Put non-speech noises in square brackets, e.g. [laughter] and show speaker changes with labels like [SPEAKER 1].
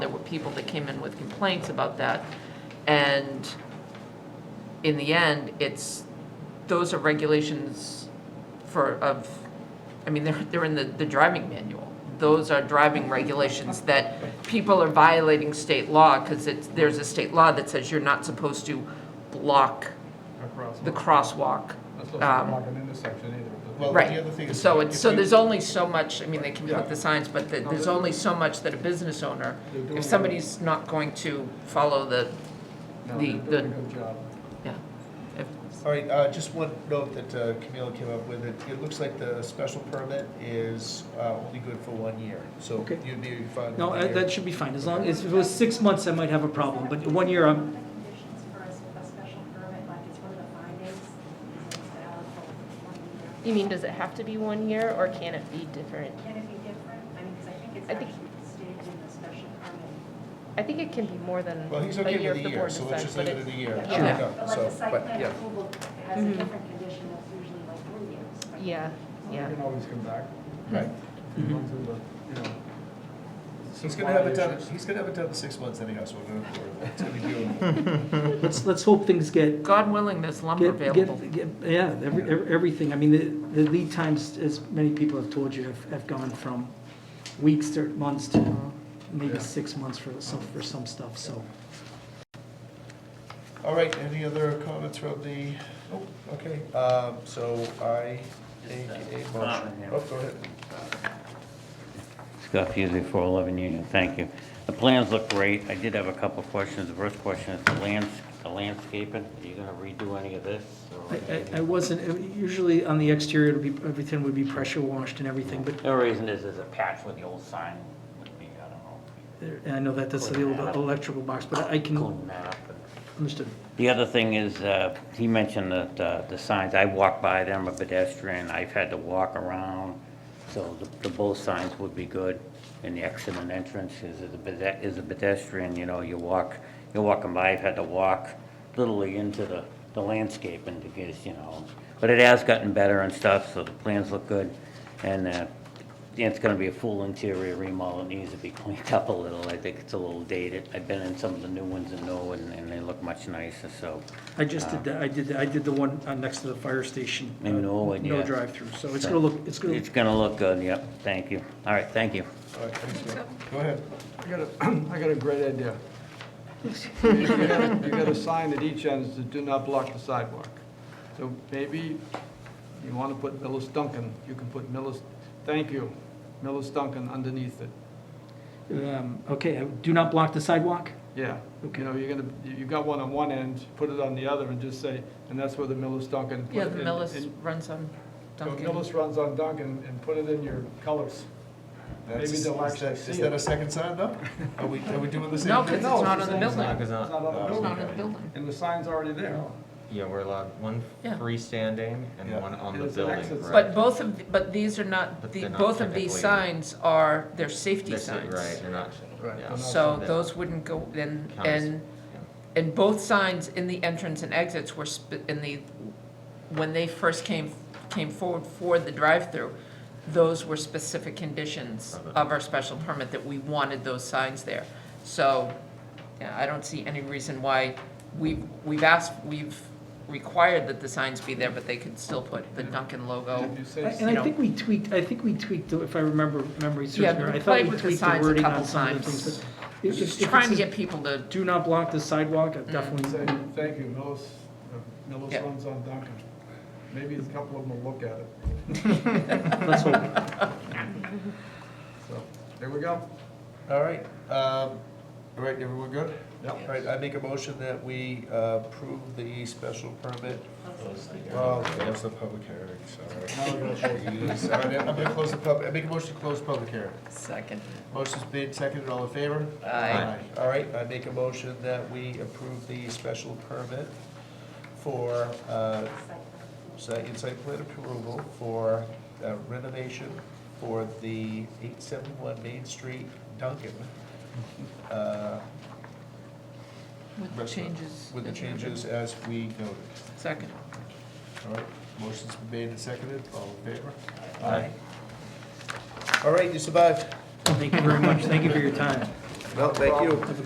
[SPEAKER 1] people that came in with complaints about that. And in the end, it's, those are regulations for, of, I mean, they're, they're in the, the driving manual. Those are driving regulations that people are violating state law because it's, there's a state law that says you're not supposed to block
[SPEAKER 2] across.
[SPEAKER 1] the crosswalk.
[SPEAKER 2] That's not
[SPEAKER 1] um,
[SPEAKER 2] like an intersection either.
[SPEAKER 3] Well,
[SPEAKER 1] Right.
[SPEAKER 3] The other thing is
[SPEAKER 1] So
[SPEAKER 3] if
[SPEAKER 1] it's, so
[SPEAKER 3] you-
[SPEAKER 1] there's only so much, I mean, they can
[SPEAKER 2] Yeah.
[SPEAKER 1] put the signs, but the-
[SPEAKER 2] No,
[SPEAKER 1] there's
[SPEAKER 2] they're-
[SPEAKER 1] only so much that a business owner,
[SPEAKER 2] They're doing
[SPEAKER 1] if
[SPEAKER 2] it.
[SPEAKER 1] somebody's not going to follow the,
[SPEAKER 2] No,
[SPEAKER 1] the-
[SPEAKER 2] they're doing a
[SPEAKER 1] the-
[SPEAKER 2] good job.
[SPEAKER 1] yeah. if-
[SPEAKER 3] All right, uh, just one note that uh, Camila came up with, it, it looks like the special permit is uh, only good for one year, so
[SPEAKER 4] Okay.
[SPEAKER 3] you'd be fine.
[SPEAKER 4] No,
[SPEAKER 3] with
[SPEAKER 4] uh,
[SPEAKER 3] the
[SPEAKER 4] that
[SPEAKER 3] year.
[SPEAKER 4] should be fine, as long, as if it was six months, I might have a problem, but one year,
[SPEAKER 5] One of
[SPEAKER 4] I'm,
[SPEAKER 5] the conditions for us with a special permit, like it's one of the findings, is it's valid for one year.
[SPEAKER 6] You mean, does it have to be one year or can it be different?
[SPEAKER 5] Can it be different? I mean, because I think it's
[SPEAKER 6] I think-
[SPEAKER 5] actually stated in the special permit.
[SPEAKER 6] I think it can be more than
[SPEAKER 3] Well, he's
[SPEAKER 6] a
[SPEAKER 3] okay
[SPEAKER 6] year
[SPEAKER 3] with the
[SPEAKER 6] if the
[SPEAKER 3] year,
[SPEAKER 6] board
[SPEAKER 3] so let's
[SPEAKER 6] decides.
[SPEAKER 3] just
[SPEAKER 6] but
[SPEAKER 3] leave it
[SPEAKER 6] it-
[SPEAKER 3] at a year.
[SPEAKER 1] Sure.
[SPEAKER 3] Yeah,
[SPEAKER 5] But like
[SPEAKER 3] so,
[SPEAKER 5] the site
[SPEAKER 3] but,
[SPEAKER 5] plan
[SPEAKER 3] yeah.
[SPEAKER 5] approval has a
[SPEAKER 4] Mm-hmm.
[SPEAKER 6] Mhm.
[SPEAKER 5] different condition that's usually like three years. right?
[SPEAKER 6] Yeah,
[SPEAKER 2] You
[SPEAKER 6] yeah.
[SPEAKER 2] can always come back.
[SPEAKER 3] Right.
[SPEAKER 2] if
[SPEAKER 1] Mm-hmm.
[SPEAKER 2] you want to, but, you know,
[SPEAKER 3] He's gonna have it done, he's gonna have it done in six months anyhow, so we're gonna, it's gonna be doable.
[SPEAKER 4] let's, let's hope things get,
[SPEAKER 1] God willing, there's lumber
[SPEAKER 4] get,
[SPEAKER 1] available.
[SPEAKER 4] get, get- yeah, every, ev- everything, I mean, the, the lead times, as many people have told you, have, have gone from weeks to months to
[SPEAKER 3] Yeah.
[SPEAKER 4] maybe six months for some, for some stuff, so.
[SPEAKER 3] All right, any other comments from the, oh, okay, um, so I make a motion. Oh, go ahead.
[SPEAKER 7] Scott Fusey, 411 Union, thank you. The plans look great. I did have a couple of questions. The first question is the lands- the landscaping. Are you going to redo any of this? or
[SPEAKER 4] I, I, I
[SPEAKER 7] anything?
[SPEAKER 4] wasn't, uh, usually on the exterior, it'll be, everything would be pressure washed and everything, but
[SPEAKER 7] The reason is there's a patch where the old sign would be, I don't know,
[SPEAKER 4] there- uh, and I know that that's the old electrical box, but I can,
[SPEAKER 7] clean that up. and-
[SPEAKER 4] understood.
[SPEAKER 7] The other thing is, uh, he mentioned that uh, the signs, I walk by them, I'm a pedestrian, I've had to walk around, so the- the both signs would be good, and the exit and entrance is as a pede- is a pedestrian, you know, you walk, you're walking by, I've had to walk literally into the the landscape and to get, you know, but it has gotten better and stuff, so the plans look good, and uh, it's gonna be a full interior remodel, it needs to be [laughs] cleaned up a little, I think it's a little dated. I've been in some of the new ones and know, and and they look much nicer, so.
[SPEAKER 4] I just did that, I did, that- I did the one uh, next to the fire station. uh,
[SPEAKER 7] In Norwood,
[SPEAKER 4] No
[SPEAKER 7] yeah.
[SPEAKER 4] drive-through, so it's gonna look, it's gonna,
[SPEAKER 7] It's gonna look good, yep, thank you. All right, thank you.
[SPEAKER 3] All right, thanks, Joe. Go ahead.
[SPEAKER 2] I got a, [clears throat] I got a great idea. You got- you got a sign at each end that do not block the sidewalk. So maybe you want to put Millis Duncan, you can put Millis, thank you, Millis Duncan underneath it.
[SPEAKER 4] um, okay, uh, do not block the sidewalk?
[SPEAKER 2] Yeah, you know, you're gonna, you you got one on one end, put it on the other and just say, and that's where the Millis Duncan.
[SPEAKER 1] Yeah, the
[SPEAKER 2] and-
[SPEAKER 1] Millis
[SPEAKER 2] and-
[SPEAKER 1] runs on
[SPEAKER 2] so
[SPEAKER 1] Dunkin'.
[SPEAKER 2] Millis runs on Duncan and put it in your colors.
[SPEAKER 3] That's-
[SPEAKER 2] Maybe they'll
[SPEAKER 3] is that-
[SPEAKER 2] actually
[SPEAKER 3] Is
[SPEAKER 2] see
[SPEAKER 3] that
[SPEAKER 2] it.
[SPEAKER 3] a second sign though? Are we, are we doing the same?
[SPEAKER 1] No,
[SPEAKER 3] thing?
[SPEAKER 1] because it's not on the building.
[SPEAKER 8] Because
[SPEAKER 2] It's
[SPEAKER 8] not,
[SPEAKER 2] not on the
[SPEAKER 1] It's
[SPEAKER 2] building.
[SPEAKER 1] not on the building.
[SPEAKER 2] And the sign's already there.
[SPEAKER 8] yeah, we're allowed one
[SPEAKER 1] Yeah.
[SPEAKER 8] freestanding and
[SPEAKER 3] Yeah.
[SPEAKER 8] one on
[SPEAKER 2] And
[SPEAKER 8] the
[SPEAKER 2] it's an
[SPEAKER 8] building.
[SPEAKER 2] exit
[SPEAKER 8] right?
[SPEAKER 2] sign.
[SPEAKER 1] But both of, but these are not,
[SPEAKER 8] But
[SPEAKER 1] the-
[SPEAKER 8] they're not
[SPEAKER 1] both of these
[SPEAKER 8] technically-
[SPEAKER 1] signs are, they're safety
[SPEAKER 8] That's it,
[SPEAKER 1] signs.
[SPEAKER 8] Right, they're not,
[SPEAKER 2] Right,
[SPEAKER 8] yeah.
[SPEAKER 2] they're not-
[SPEAKER 1] So
[SPEAKER 8] That
[SPEAKER 1] those wouldn't go, and,
[SPEAKER 8] counts.
[SPEAKER 1] and And both signs in the entrance and exits were sp- in the, when they first came, came forward for the drive-through, those were specific conditions
[SPEAKER 8] Of it.
[SPEAKER 1] of our special permit that we wanted those signs there. So, yeah, I don't see any reason why, we, we've asked, we've required that the signs be there, but they could still put the Duncan logo.
[SPEAKER 2] If you say
[SPEAKER 4] And
[SPEAKER 1] You
[SPEAKER 4] I
[SPEAKER 1] know.
[SPEAKER 4] think we tweaked, I think we tweaked, if I remember, memory
[SPEAKER 1] Yeah,
[SPEAKER 4] serves me
[SPEAKER 1] we
[SPEAKER 4] right, I
[SPEAKER 1] played
[SPEAKER 4] thought we
[SPEAKER 1] with the
[SPEAKER 4] tweaked the
[SPEAKER 1] signs a
[SPEAKER 4] wording on
[SPEAKER 1] couple
[SPEAKER 4] some of the
[SPEAKER 1] times.
[SPEAKER 4] things, but. if- if-
[SPEAKER 1] Just
[SPEAKER 4] if it
[SPEAKER 1] trying to
[SPEAKER 4] says
[SPEAKER 1] get people to,
[SPEAKER 4] Do not block the sidewalk, I
[SPEAKER 2] Say,
[SPEAKER 4] definitely,
[SPEAKER 2] thank you, Millis, uh, Millis
[SPEAKER 1] Yeah.
[SPEAKER 2] runs on Duncan. Maybe a couple of them will look at
[SPEAKER 1] [laughs]
[SPEAKER 2] it.
[SPEAKER 4] let's hope.
[SPEAKER 2] So, there we go.
[SPEAKER 3] All right, um, all right, everyone good?
[SPEAKER 2] Yep.
[SPEAKER 3] All right, I make a motion that we uh, approve the special permit. Oh, close the public hearing,
[SPEAKER 1] [laughs]
[SPEAKER 3] sorry. Jeez, All right, I'm gonna close the pub, I make a motion to close the public hearing.
[SPEAKER 1] second,
[SPEAKER 3] Motion's made, seconded, all in favor?
[SPEAKER 1] Aye.
[SPEAKER 3] All right, I make a motion that we approve the special permit for, uh, site, site plan approval for uh, renovation for the eight seven one Main Street Duncan. uh,
[SPEAKER 1] with the
[SPEAKER 3] restaurant,
[SPEAKER 1] changes.
[SPEAKER 3] With the
[SPEAKER 1] as noted.
[SPEAKER 3] changes as we noted.
[SPEAKER 1] Second.
[SPEAKER 3] All right, motion's been made and seconded, all in favor?
[SPEAKER 8] Aye.
[SPEAKER 3] All right, you survived.
[SPEAKER 1] Mm.
[SPEAKER 4] Thank you very much, thank you for your time.
[SPEAKER 8] No, thank you.